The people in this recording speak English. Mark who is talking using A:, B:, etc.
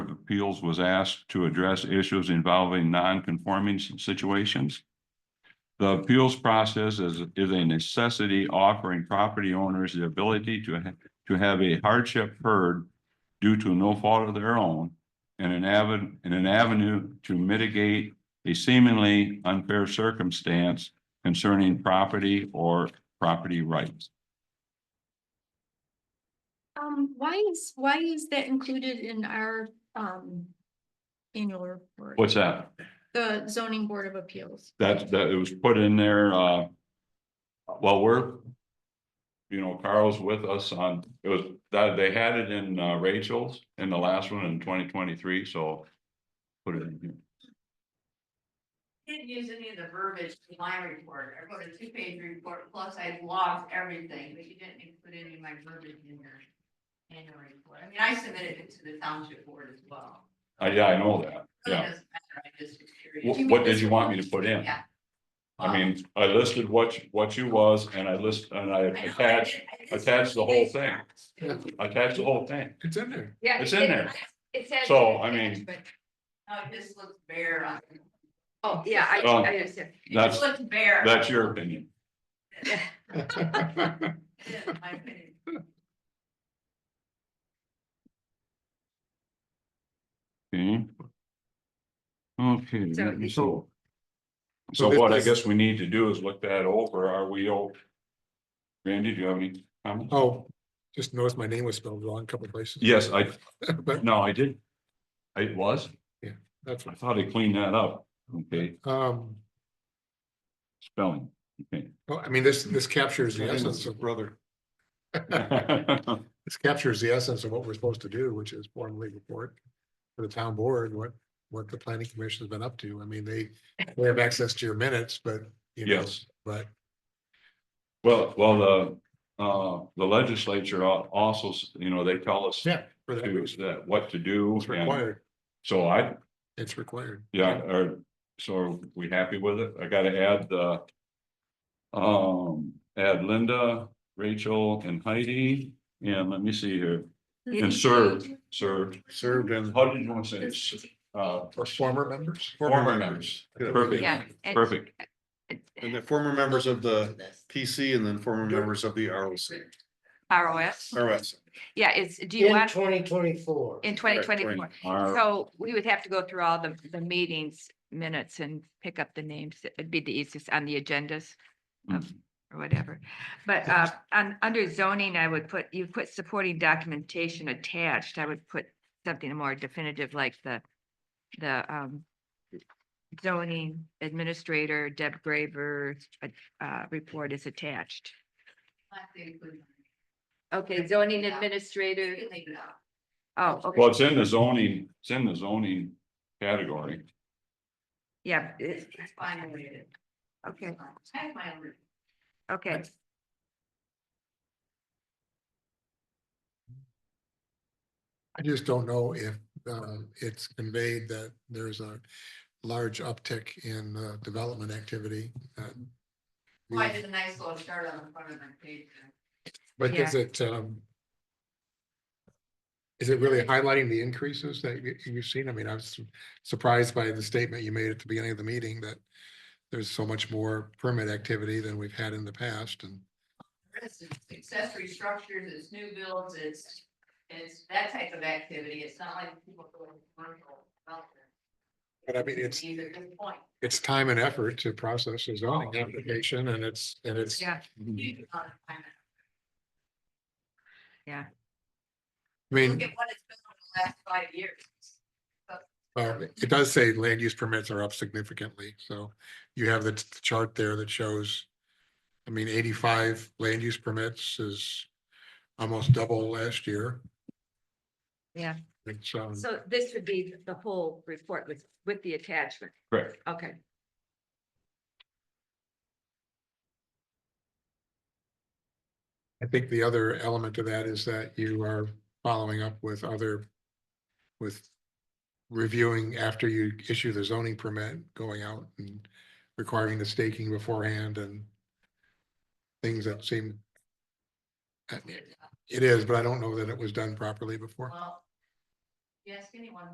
A: Appeals was asked to address issues involving non-conforming s- situations. The appeals process is, is a necessity offering property owners the ability to, ha- to have a hardship heard due to no fault of their own and an avenue, and an avenue to mitigate a seemingly unfair circumstance concerning property or property rights.
B: Um, why is, why is that included in our, um, annual report?
A: What's that?
B: The zoning board of appeals.
A: That, that it was put in there, uh. Well, we're. You know, Carl's with us on, it was, that, they had it in uh, Rachel's in the last one in twenty twenty-three, so. Put it in here.
C: Didn't use any of the verbiage in my report. I wrote a two-page report, plus I logged everything, but you didn't include any of my verbiage in your annual report. I mean, I submitted it to the township board as well.
A: I, Uh, yeah, I know that.
C: So it
A: Yeah.
C: doesn't matter, I just was
A: What,
C: curious.
A: what did you want me to put in?
C: Yeah.
A: I mean, I listed what, you- what you was and I list, and I
C: I know, I
A: attached,
C: did- I Oh, did
A: attach the whole thing.
C: some-
A: attached the whole thing.
D: It's in there.
C: Yeah.
A: It's in there.
C: It says.
A: So, I mean-
C: but- No, it just looks bare on.
E: Oh, yeah, I,
A: Well,
E: I understand.
C: It
A: That's,
C: just looks bare.
A: that's your opinion.
C: It is, in my opinion.
A: Okay. Okay.
E: So-
A: let me see. So
D: So this-
A: what I
D: this-
A: guess we need to do is look that over. Are we all? Randy, do you have any comments?
D: Oh, just noticed my name was spelled wrong a couple places.
A: Yes, I,
D: But
A: no, I did. It was,
D: that's,
A: I thought I cleaned that up. Okay,
D: um,
A: spelling.
D: well, I mean, this, this captures the
A: Name is
D: essence of brother.
A: Okay,
D: This captures the essence of what we're supposed to do, which is formally report to the town board, what, what the planning commission has been up to. I mean, they, they have access to your minutes, but, you know,
A: Yes.
D: but
A: Well, well, the, uh, the legislature al- also, you know, they tell us to,
D: yeah, for that reason,
A: that what to do.
D: it's
A: and
D: required,
A: So I,
D: it's required.
A: uh, Yeah, or, so are we happy with it? I gotta add the. Um, add Linda, Rachel and Heidi, and let me see here, and served, served.
D: Served in
A: How did you want to say it? Uh,
D: for former members.
A: Oh, former members,
E: Yeah.
A: perfect,
E: and-
A: perfect,
F: And the former members of the
C: This.
F: PC and then former members of the ROC,
E: ROS,
F: ROS.
E: yeah, it's, do you
G: In
E: want,
G: twenty twenty-four.
E: in twenty twenty-four,
A: Our-
E: so we would have to go through all the, the meetings minutes and pick up the names, it'd be the easiest on the agendas. of- Or whatever, but, uh, on, under zoning, I would put, you put supporting documentation attached, I would put something more definitive like the, the, um, zoning administrator Deb Graver's, uh, uh, report is attached.
C: Not to include-
E: Okay, zoning
C: Yeah.
E: administrator,
C: You can leave it out.
E: oh, okay,
A: Well, it's in the zoning, it's in the zoning category,
E: yeah, it-
C: It's fine the way it is.
E: okay,
C: I have my own.
E: okay.
D: I just don't know if um, it's conveyed that there's a large uptick in uh, development activity. uh, that
C: Well, I
D: we've-
C: did a nice little chart on the front of my page.
D: But is it um, is it really highlighting the increases that you- you've seen? I mean, I was surprised by the statement you made at the beginning of the meeting that there's so much more permit activity than we've had in the past and
C: This is accessory structures, it's new builds, it's, it's that type of activity. It's not like people go to commercial. development.
D: But I mean, it's-
C: These are good point.
D: it's time and effort to process a zoning application and it's, and it's
E: Yeah,
C: You can not find it.
D: I mean.
C: Look at what it's been over the last five years.
D: Uh, it does say land use permits are up significantly, so you have the t- chart there that shows. I mean, eighty-five land use permits is almost double last year.
E: Yeah.
D: It's, um,
E: so this would be the whole report with, with the attachment,
A: correct?
E: okay.
D: I think the other element to that is that you are following up with other. With reviewing after you issue the zoning permit, going out and requiring the staking beforehand and. Things that seem. I mean, It is, but I don't know that it was done properly before.
C: Well, if you ask anyone